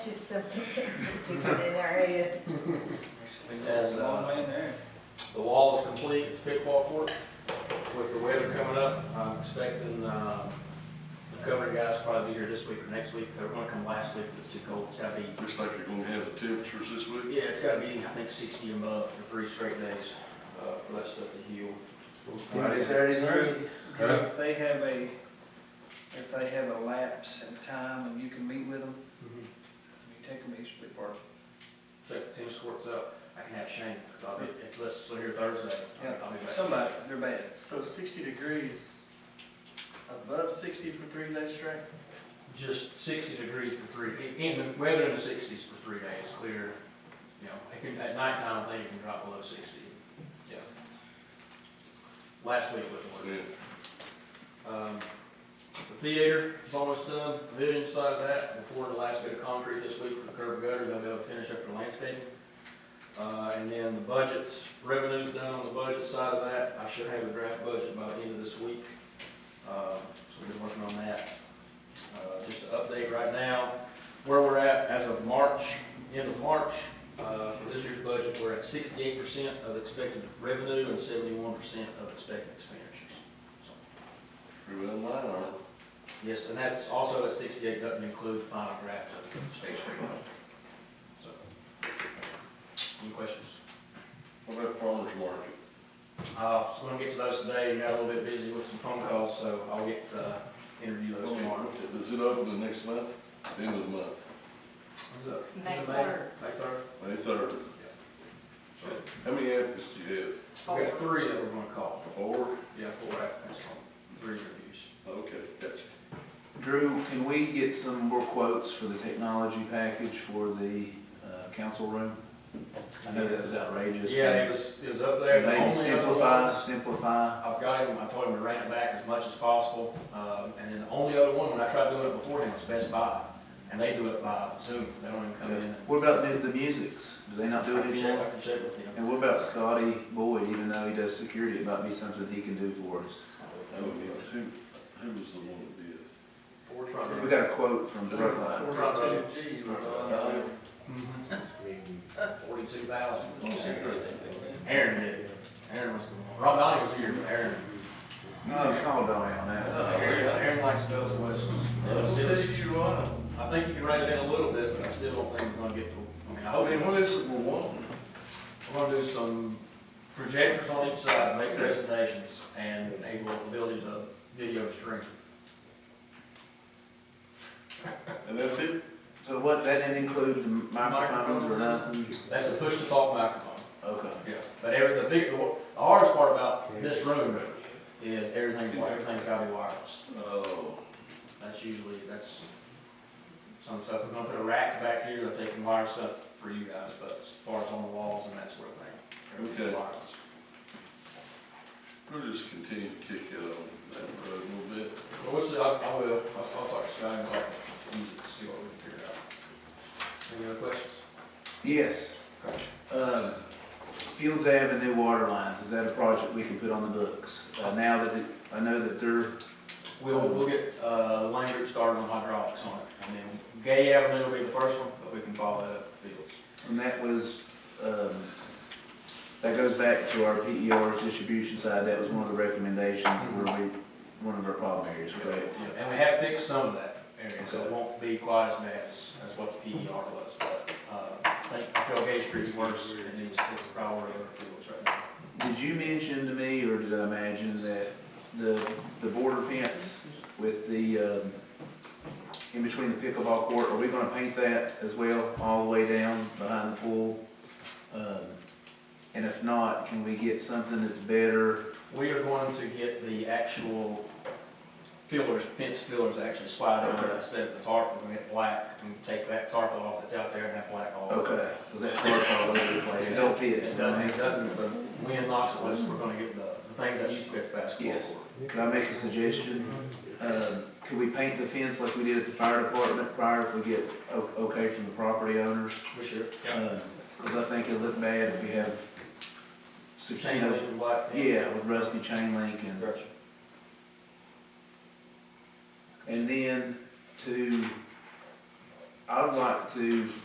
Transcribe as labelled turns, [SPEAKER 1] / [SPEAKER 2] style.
[SPEAKER 1] Just something to get in our head.
[SPEAKER 2] think that's a long
[SPEAKER 3] way in there.
[SPEAKER 2] The wall is complete, it's pickleball court. With the weather coming up, I'm expecting, uh, the covering guys will probably be here this week or next week. They're gonna come last week, but it's too cold. It's gotta be,
[SPEAKER 4] Looks like you're gonna have the temperatures this week.
[SPEAKER 2] yeah, it's gotta be, I think, sixty and above for three straight days, uh, for that stuff to heal.
[SPEAKER 3] Friday, Saturday, Sunday.
[SPEAKER 5] Huh?
[SPEAKER 3] If they have a, if they have a lapse in time and you can meet with them, you take them each to the park.
[SPEAKER 2] Mm-hmm. Check the tennis courts up. I can have Shane, because I'll be, if let's, we're here Thursday,
[SPEAKER 3] Yeah.
[SPEAKER 2] I'll be back.
[SPEAKER 3] Somebody, they're bad.
[SPEAKER 5] So sixty degrees, above sixty for three days straight?
[SPEAKER 2] Just sixty degrees for three, in the weather in the sixties for three days, clear, you know, it can- at nighttime, I think it can drop below sixty. Yeah. Last week was one.
[SPEAKER 4] Yeah.
[SPEAKER 2] Um, the theater is almost done, pavilion side of that, we're pouring the last bit of concrete this week for the curb and gutter, they'll be able to finish up the landscaping. Uh, and then the budgets, revenue's done on the budget side of that, I should have a draft budget by the end of this week. Uh, so we're working on that. Uh, just an update right now, where we're at as of March, end of March, uh, for this year's budget, we're at sixty-eight percent of expected revenue and seventy-one percent of expected expenditures. So
[SPEAKER 4] You're in line, aren't you?
[SPEAKER 2] Yes, and that's also at sixty-eight, doesn't include the final draft of State Street. So, Any questions?
[SPEAKER 4] What about farmer's market?
[SPEAKER 2] Uh, just gonna get to those today, got a little bit busy with some phone calls, so I'll get, uh, interview those tomorrow.
[SPEAKER 4] Does it open the next month? End of the month,
[SPEAKER 2] Who's up?
[SPEAKER 1] May
[SPEAKER 2] May?
[SPEAKER 1] third.
[SPEAKER 2] May third.
[SPEAKER 4] May third? How many applicants do you
[SPEAKER 2] We got three that we're gonna call,
[SPEAKER 4] have? Four?
[SPEAKER 2] yeah, four applicants, three interviews.
[SPEAKER 4] Okay, gotcha.
[SPEAKER 6] Drew, can we get some more quotes for the technology package for the uh, council room? I know that was outrageous.
[SPEAKER 2] Yeah, it was, it was up there. The
[SPEAKER 6] Maybe
[SPEAKER 2] only other
[SPEAKER 6] simplify,
[SPEAKER 2] ones-
[SPEAKER 6] simplify.
[SPEAKER 2] I've got him, I told him to rent it back as much as possible, um, and then the only other one, when I tried doing it beforehand, was Best Buy, and they do it by Zoom, they don't even come in.
[SPEAKER 6] What about the, the musics? Do they not do
[SPEAKER 2] I
[SPEAKER 6] it
[SPEAKER 2] can check,
[SPEAKER 6] anymore?
[SPEAKER 2] I can check with him.
[SPEAKER 6] And what about Scotty Boyd, even though he does security, it might be something he can do for us.
[SPEAKER 4] That would be, who, who was the one that did?
[SPEAKER 6] We
[SPEAKER 2] Forty-two.
[SPEAKER 6] got a quote from Frontline.
[SPEAKER 5] G.
[SPEAKER 2] Forty-two.
[SPEAKER 4] Uh,
[SPEAKER 2] Mm-hmm. Forty-two thousand.
[SPEAKER 4] Oh, secret.
[SPEAKER 2] Aaron did, it. Aaron was the one, Rob Donnie was here, but Aaron,
[SPEAKER 6] You can Oh, call Donnie on
[SPEAKER 4] Oh,
[SPEAKER 6] that.
[SPEAKER 2] Aaron Aaron likes bells and whistles.
[SPEAKER 4] I'll take you on.
[SPEAKER 2] I think you can write it in a little bit, but I still don't think we're gonna get to, I mean, I
[SPEAKER 4] I
[SPEAKER 2] hope.
[SPEAKER 4] mean, what is it we're wanting?
[SPEAKER 2] We're gonna do some projectors on each side, make presentations, and enable the ability to video stream.
[SPEAKER 4] And that's it?
[SPEAKER 6] So what, that didn't include the microphones or nothing?
[SPEAKER 2] That's a push-to-talk microphone.
[SPEAKER 6] Okay.
[SPEAKER 2] Yeah. But every, the big, the hardest part about this room is everything's, everything's gotta be wireless.
[SPEAKER 4] Oh,
[SPEAKER 2] That's usually, that's some stuff, we're gonna put a rack back here, that they can wire stuff for you guys, but as far as on the walls and that sort of thing. everything's
[SPEAKER 4] Okay.
[SPEAKER 2] wireless.
[SPEAKER 4] we'll just continue to kick it on that road a little bit.
[SPEAKER 2] Well, we'll see, I, I will, I'll, I'll talk to Scott and talk to music, see what we can figure out. Any other questions?
[SPEAKER 6] Yes. Um, Fields Avenue new water lines, is that a project we can put on the books? Uh, Now that, it- I know that they're,
[SPEAKER 2] We'll, we'll get, uh, Lane Group started on hydraulics on it, and then Gay Avenue will be the first one, but we can follow that up with Fields.
[SPEAKER 6] and that was, um, that goes back to our PER's distribution side, that was one of the recommendations that were, we- one of our problem areas, correct?
[SPEAKER 2] Yeah, And we have fixed some of that area, so it won't be quite as bad as, as what the PER was, but, uh, I think, I feel Gay Street's worse, and it's, it's a priority over Fields right now.
[SPEAKER 6] Did you mention to me, or did I imagine, that the, the border fence with the, um, in between the pickleball court, are we gonna paint that as well, all the way down behind the pool? Um, And if not, can we get something that's better?
[SPEAKER 2] We are going to get the actual fillers, fence fillers actually slide over
[SPEAKER 6] Okay.
[SPEAKER 2] instead of the tarp, we're gonna get black, and take that tarp off that's out there and have black all over.
[SPEAKER 6] Okay, because that tarp's all over the place, it don't fit.
[SPEAKER 2] It doesn't, it doesn't, but we in Knoxville, it's- we're gonna get the, the things that used to be at the basketball
[SPEAKER 6] Yes.
[SPEAKER 2] court.
[SPEAKER 6] Could I make a suggestion? Um, Could we paint the fence like we did at the fire department prior if we get o- okay from the property owners?
[SPEAKER 2] For sure. Uh,
[SPEAKER 6] Because I think it'd look bad if we have,
[SPEAKER 2] The
[SPEAKER 6] six-
[SPEAKER 2] chain link and black fence.
[SPEAKER 6] yeah, with rusty chain link and,
[SPEAKER 2] Gotcha.
[SPEAKER 6] and then to, I would like to